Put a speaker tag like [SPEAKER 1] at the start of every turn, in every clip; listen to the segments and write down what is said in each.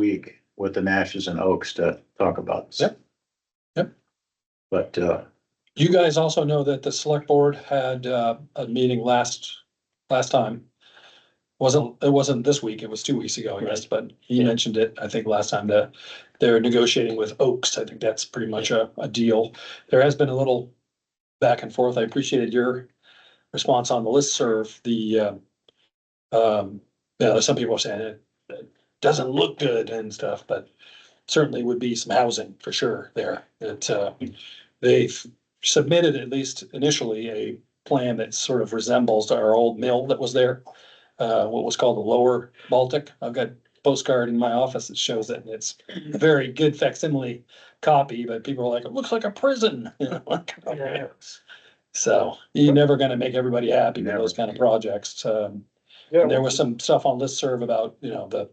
[SPEAKER 1] week with the Nashes and Oaks to talk about. this.
[SPEAKER 2] Yep. Yep.
[SPEAKER 1] But, uh,
[SPEAKER 2] You guys also know that the select board had uh, a meeting last, last time. Wasn't, it wasn't this week, it was two weeks ago, I guess, but he mentioned it, I think, last time that they're negotiating with Oaks. I think that's pretty much a, a deal. There has been a little back and forth. I appreciated your response on the listserv, the um, um, you know, some people are saying it, it doesn't look good and stuff, but certainly would be some housing for sure there. That uh, they've submitted at least initially a plan that sort of resembles our old mill that was there. Uh, what was called the Lower Baltic. I've got postcard in my office that shows it and it's a very good facsimile copy, but people are like, it looks like a prison. You know, like,
[SPEAKER 3] Yeah.
[SPEAKER 2] So you're never gonna make everybody happy with
[SPEAKER 1] Never.
[SPEAKER 2] those kind of projects. Um,
[SPEAKER 3] Yeah,
[SPEAKER 2] and there was some stuff on listserv about, you know, the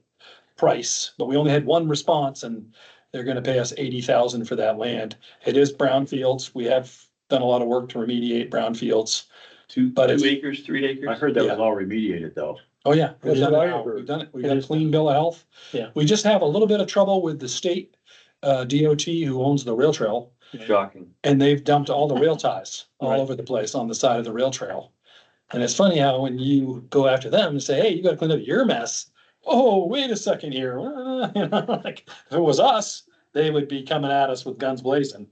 [SPEAKER 2] price, but we only had one response and they're gonna pay us eighty thousand for that land. It is brownfields. We have done a lot of work to remediate brownfields.
[SPEAKER 1] two,
[SPEAKER 2] But
[SPEAKER 4] Two
[SPEAKER 2] it's,
[SPEAKER 4] acres, three acres?
[SPEAKER 1] I heard that was all remediated though.
[SPEAKER 2] oh yeah, we've
[SPEAKER 3] That's
[SPEAKER 2] done
[SPEAKER 3] what
[SPEAKER 2] it
[SPEAKER 3] I
[SPEAKER 2] now.
[SPEAKER 3] heard.
[SPEAKER 2] We've done it. We've
[SPEAKER 4] It
[SPEAKER 2] got a
[SPEAKER 4] is
[SPEAKER 2] clean bill of health.
[SPEAKER 4] Yeah.
[SPEAKER 2] We just have a little bit of trouble with the state, uh, DOT who owns the rail trail.
[SPEAKER 4] Shocking.
[SPEAKER 2] And they've dumped all the rail ties all
[SPEAKER 4] Right.
[SPEAKER 2] over the place on the side of the rail trail. And it's funny how when you go after them and say, hey, you gotta clean up your mess. Oh, wait a second here. Uh, you know, Like, if it was us, they would be coming at us with guns blazing.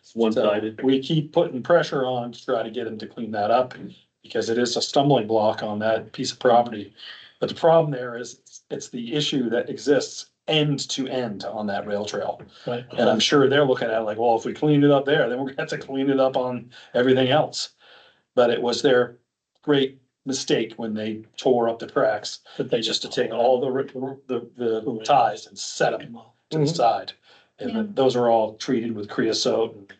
[SPEAKER 4] It's
[SPEAKER 2] So
[SPEAKER 4] one-sided.
[SPEAKER 2] We keep putting pressure on to try to get them to clean that up because it is a stumbling block on that piece of property. But the problem there is it's the issue that exists end to end on that rail trail.
[SPEAKER 3] Right.
[SPEAKER 2] And I'm sure they're looking at it like, well, if we clean it up there, then we're gonna have to clean it up on everything else. But it was their great mistake when they tore up the tracks,
[SPEAKER 3] but
[SPEAKER 2] they just to take all the, ri- the, the ties and set them to the
[SPEAKER 3] Mhm.
[SPEAKER 2] side. And then those are all treated with creosote and,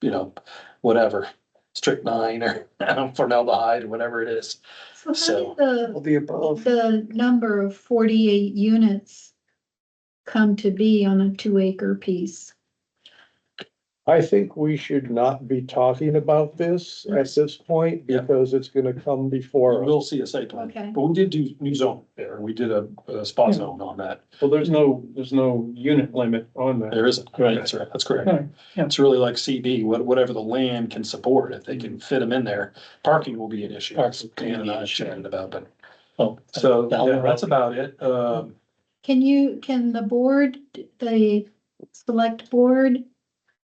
[SPEAKER 2] you know, whatever, strychnine or formaldehyde, whatever it is. So-
[SPEAKER 5] So how did
[SPEAKER 3] the above.
[SPEAKER 5] the, the number of forty-eight units come to be on a two acre piece?
[SPEAKER 3] I think we should not be talking about this at this point
[SPEAKER 2] Yeah.
[SPEAKER 3] because it's gonna come
[SPEAKER 2] Or
[SPEAKER 3] before. us.
[SPEAKER 2] we'll see a site plan.
[SPEAKER 5] Okay.
[SPEAKER 2] But we did do new zone there. We did a, a spot zone on that.
[SPEAKER 6] Well, there's no, there's no unit limit on that.
[SPEAKER 2] There isn't.
[SPEAKER 6] Right.
[SPEAKER 2] That's right. That's correct.
[SPEAKER 6] Right, yeah.
[SPEAKER 2] It's really like CB, what, whatever the land can support, if they can fit them in there, parking will be an issue.
[SPEAKER 6] Parking will be
[SPEAKER 2] Dan and I
[SPEAKER 6] an issue.
[SPEAKER 2] chatted about, but,
[SPEAKER 6] Oh,
[SPEAKER 2] so,
[SPEAKER 6] down the
[SPEAKER 2] yeah, that's about it. Um,
[SPEAKER 5] Can you, can the board, the select board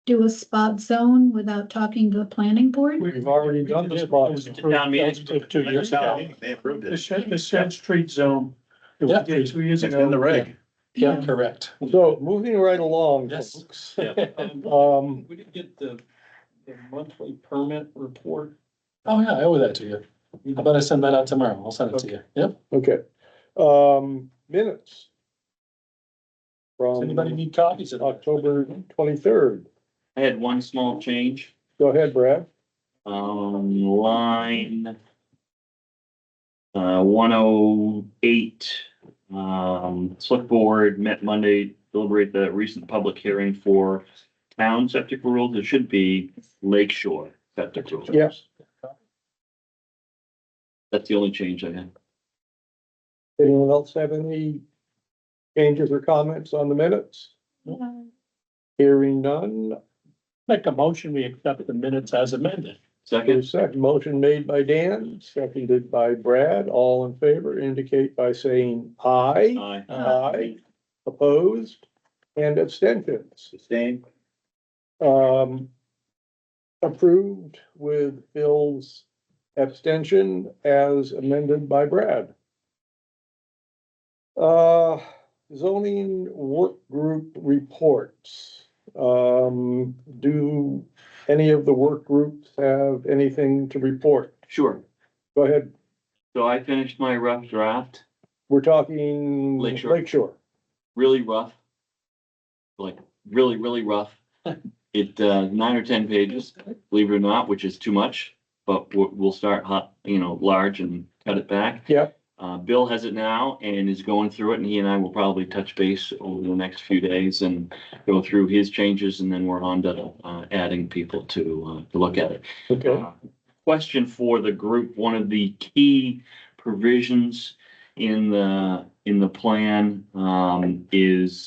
[SPEAKER 5] do a spot zone without talking to the planning board?
[SPEAKER 3] We've already done the spot.
[SPEAKER 4] Town meeting.
[SPEAKER 6] That was Two years ago.
[SPEAKER 1] uh, They approved
[SPEAKER 6] The
[SPEAKER 1] it.
[SPEAKER 6] Shed, the Shed Street Zone. It was Two years
[SPEAKER 1] It's
[SPEAKER 6] ago.
[SPEAKER 1] in the reg.
[SPEAKER 2] yeah, correct.
[SPEAKER 3] So moving right along,
[SPEAKER 2] Yes.
[SPEAKER 3] folks.
[SPEAKER 6] Yeah, um,
[SPEAKER 3] Um,
[SPEAKER 6] We didn't get the, the monthly permit report.
[SPEAKER 2] Oh, yeah, I owe that to you. How about I send that out tomorrow? I'll send it to you. Yep.
[SPEAKER 3] okay, um, minutes.
[SPEAKER 2] Does anybody
[SPEAKER 3] From
[SPEAKER 2] need copies of that?
[SPEAKER 3] October twenty-third.
[SPEAKER 4] I had one small change,
[SPEAKER 3] Go ahead, Brad.
[SPEAKER 4] um, line. Uh, one oh eight, um, select board met Monday, deliberate the recent public hearing for town septic rules. It should be Lake Shore septic rules.
[SPEAKER 3] Yes.
[SPEAKER 4] That's the only change I had.
[SPEAKER 3] Anyone else have any changes or comments on the minutes?
[SPEAKER 5] Uh,
[SPEAKER 3] Hearing none,
[SPEAKER 6] Make a motion, we accept the minutes as amended.
[SPEAKER 3] There's
[SPEAKER 4] Second,
[SPEAKER 3] a Second, motion made by Dan, seconded by Brad, all in favor indicate by saying aye.
[SPEAKER 4] aye.
[SPEAKER 3] Aye. Opposed and abstentions,
[SPEAKER 1] Sustained.
[SPEAKER 3] um. Approved with Phil's abstention as amended by Brad. Uh, zoning work group reports. Um, do any of the work groups have anything to report?
[SPEAKER 4] Sure.
[SPEAKER 3] Go ahead,
[SPEAKER 4] So I finished my rough draft,
[SPEAKER 3] we're talking
[SPEAKER 4] Lakeshore.
[SPEAKER 3] Lake Shore.
[SPEAKER 4] really rough. Like, really, really rough. It, uh, nine or ten pages, believe it or not, which is too much, but we'll, we'll start hot, you know, large and cut it back.
[SPEAKER 3] Yep.
[SPEAKER 4] Uh, Bill has it now and is going through it, and he and I will probably touch base over the next few days and go through his changes, and then we're on to, uh, adding people to, uh, to look at it.
[SPEAKER 3] Okay,
[SPEAKER 4] Uh, Question for the group, one of the key provisions in the, in the plan, um, is